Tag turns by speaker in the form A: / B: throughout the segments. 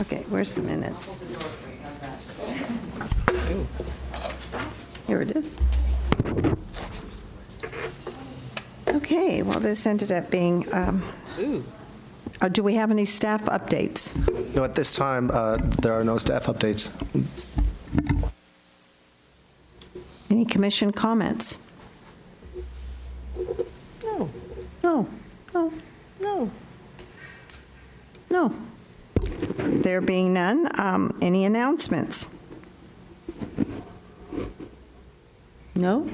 A: Okay, where's the minutes? Here it is. Okay, well, this ended up being, um, oh, do we have any staff updates?
B: No, at this time, uh, there are no staff updates.
A: Any commission comments?
C: No,
A: No, no,
C: no.
A: no. There being none, um, any announcements? No,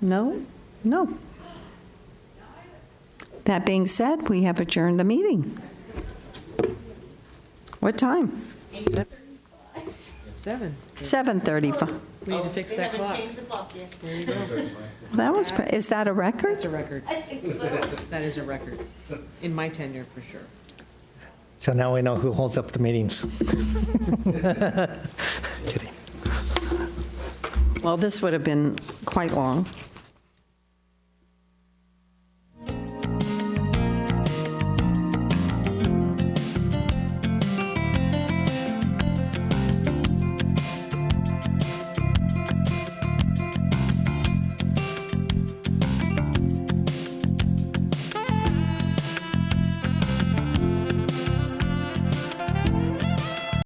A: no, no. That being said, we have adjourned the meeting. What time?
C: Sep- Seven.
A: 7:35.
C: We need to fix that clock.
D: Change the clock yet.
A: That one's, pre- is that a record?
C: That's a record. That is a record, in my tenure, for sure.
E: So now we know who holds up the meetings. Kidding.
A: Well, this would have been quite long.